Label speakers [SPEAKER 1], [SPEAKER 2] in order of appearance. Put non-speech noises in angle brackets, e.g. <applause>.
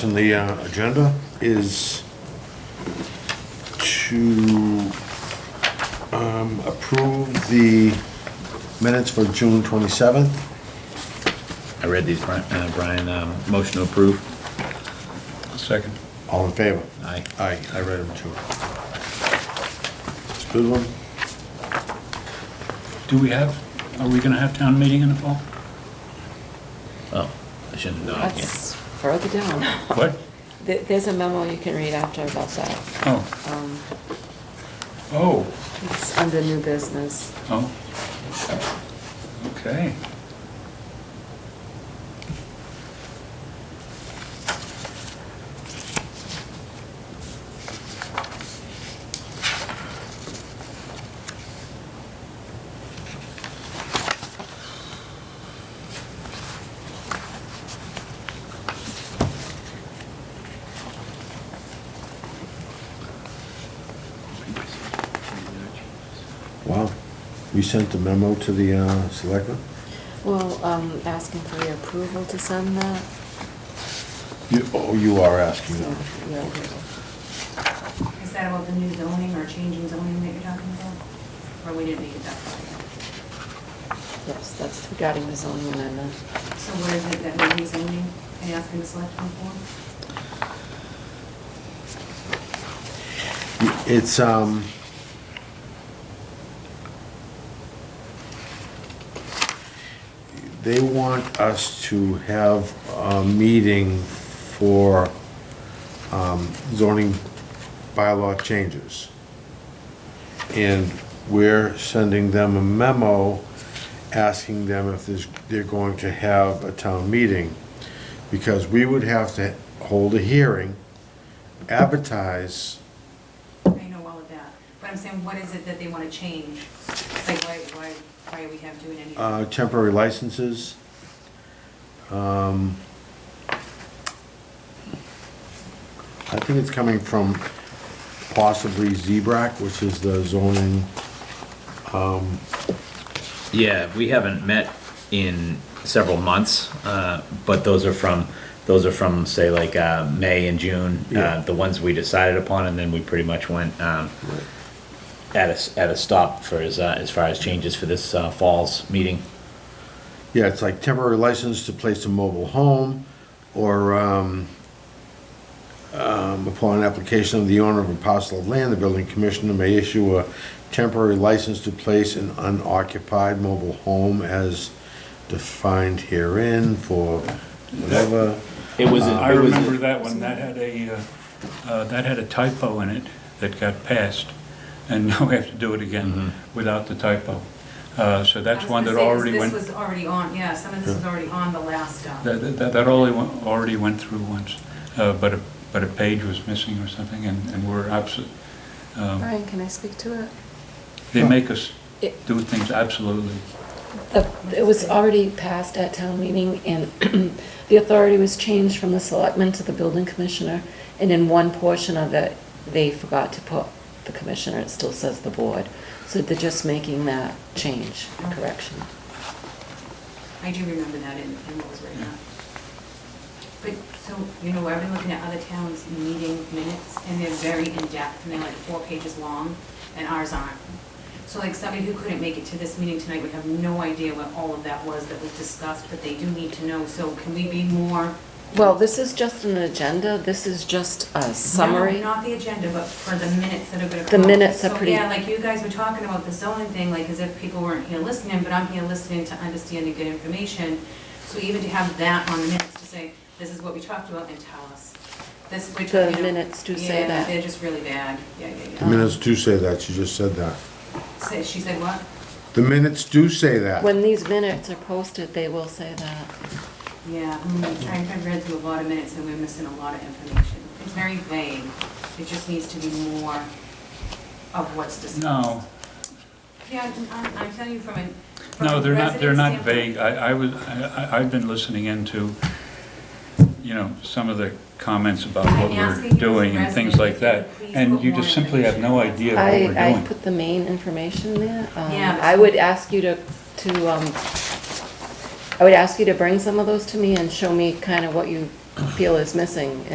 [SPEAKER 1] On the uh, agenda is to um, approve the minutes for June 27th.
[SPEAKER 2] I read these, Bri- uh, Brian, um, motion to approve.
[SPEAKER 3] Second.
[SPEAKER 1] All in favor?
[SPEAKER 2] Aye.
[SPEAKER 1] Aye, I read them too. It's a good one.
[SPEAKER 3] Do we have, are we gonna have town meeting in the fall?
[SPEAKER 2] Oh, I shouldn't have done it again.
[SPEAKER 4] That's further down.
[SPEAKER 3] What?
[SPEAKER 4] There- There's a memo you can read after about that.
[SPEAKER 3] Oh,
[SPEAKER 4] Um,
[SPEAKER 3] oh,
[SPEAKER 4] It's under new business.
[SPEAKER 3] oh. Okay.
[SPEAKER 1] Wow. We sent the memo to the uh, selectmen?
[SPEAKER 4] Well, um, asking for your approval to send that.
[SPEAKER 1] You- Oh, you are asking
[SPEAKER 4] So,
[SPEAKER 1] them.
[SPEAKER 4] yeah.
[SPEAKER 5] Is that about the new zoning or change in zoning that you're talking about? Or we didn't make it that far?
[SPEAKER 4] Yes, that's regarding the zoning amendment.
[SPEAKER 5] yet? So what is it that we're rezoning and asking the selectmen for?
[SPEAKER 1] It's, um... They want us to have a meeting for um, zoning bylaw changes. And we're sending them a memo asking them if there's, they're going to have a town meeting. Because we would have to hold a hearing, advertise,
[SPEAKER 5] I know all of that, but I'm saying, what is it that they want to change? It's Like, why, why, why are we have doing anything?
[SPEAKER 1] uh, temporary licenses. Um, I think it's coming from possibly ZBRAC, which is the zoning,
[SPEAKER 2] Yeah, we haven't met in several months, uh, but those are from, those are from, say, like, uh, May and June.
[SPEAKER 1] Yeah.
[SPEAKER 2] Uh, the ones we decided upon, and then we pretty much went, um, at a, s- at a stop for as, uh, as far as changes for this, uh, fall's meeting.
[SPEAKER 1] yeah, it's like temporary license to place a mobile home or um, um, upon application of the owner of a parcel of land, the building commissioner may issue a temporary license to place an unoccupied mobile home as defined herein for whatever.
[SPEAKER 2] It was,
[SPEAKER 3] I
[SPEAKER 2] it was,
[SPEAKER 3] remember that one, that had a, uh, uh, that had a typo in it that got passed, and <laughs> now we have to do it again
[SPEAKER 2] Mm-hmm.
[SPEAKER 3] without the typo. Uh, So that's one that already went,
[SPEAKER 5] I was gonna say, 'cause this was already on, yeah, some of this was already on the last, um,
[SPEAKER 3] that, that that already went, already went through once, Uh, but a, but a page was missing or something, and, and we're absolute,
[SPEAKER 4] Brian, can I speak to it?
[SPEAKER 3] they make us
[SPEAKER 4] It-
[SPEAKER 3] do things absolutely.
[SPEAKER 4] Uh, It was already passed at town meeting, and <clears throat> the authority was changed from the selectman to the building commissioner, and in one portion of it, they forgot to put the commissioner, it still says the board. So they're just making that change, correction.
[SPEAKER 5] I do remember that in, in what was written up. But, so, you know, I've been looking at other towns' meeting minutes, and they're very in-depth, and they're like four pages long, and ours aren't. So like, somebody who couldn't make it to this meeting tonight would have no idea what all of that was that was discussed, but they do need to know, so can we be more?
[SPEAKER 4] Well, this is just an agenda, this is just a summary.
[SPEAKER 5] No, not the agenda, but for the minutes that are gonna
[SPEAKER 4] The
[SPEAKER 5] come.
[SPEAKER 4] minutes are pretty-
[SPEAKER 5] So, yeah, like you guys were talking about the zoning thing, like as if people weren't here listening, but I'm here listening to understand and get information. So even to have that on the minutes to say, this is what we talked about and tell us. This, which, you
[SPEAKER 4] The
[SPEAKER 5] know,
[SPEAKER 4] minutes do say that.
[SPEAKER 5] Yeah, they're just really bad. Yeah, yeah,
[SPEAKER 1] The
[SPEAKER 5] yeah.
[SPEAKER 1] minutes do say that, you just said that.
[SPEAKER 5] Say- She said what?
[SPEAKER 1] The minutes do say that.
[SPEAKER 4] When these minutes are posted, they will say that.
[SPEAKER 5] Yeah, mm, I- I've read through a lot of minutes and we're missing a lot of information. It's very vague. It just needs to be more of what's discussed.
[SPEAKER 3] No,
[SPEAKER 5] Yeah, I'm- I'm, I'm telling you from a. from
[SPEAKER 3] No,
[SPEAKER 5] a
[SPEAKER 3] they're not, they're not
[SPEAKER 5] resident
[SPEAKER 3] vague.
[SPEAKER 5] standpoint.
[SPEAKER 3] I, I was, I, I- I've been listening into, you know, some of the comments about
[SPEAKER 5] I'm
[SPEAKER 3] what we're
[SPEAKER 5] asking you as a
[SPEAKER 3] doing and things like that.
[SPEAKER 5] resident, please
[SPEAKER 3] And
[SPEAKER 5] put
[SPEAKER 3] you
[SPEAKER 5] more
[SPEAKER 3] just simply have no idea
[SPEAKER 5] information.
[SPEAKER 3] what we're
[SPEAKER 4] I, I
[SPEAKER 3] doing.
[SPEAKER 4] put the main information there. Um,
[SPEAKER 5] Yeah, but-
[SPEAKER 4] I would ask you to, to, um, I would ask you to bring some of those to me and show me kind of what you feel is missing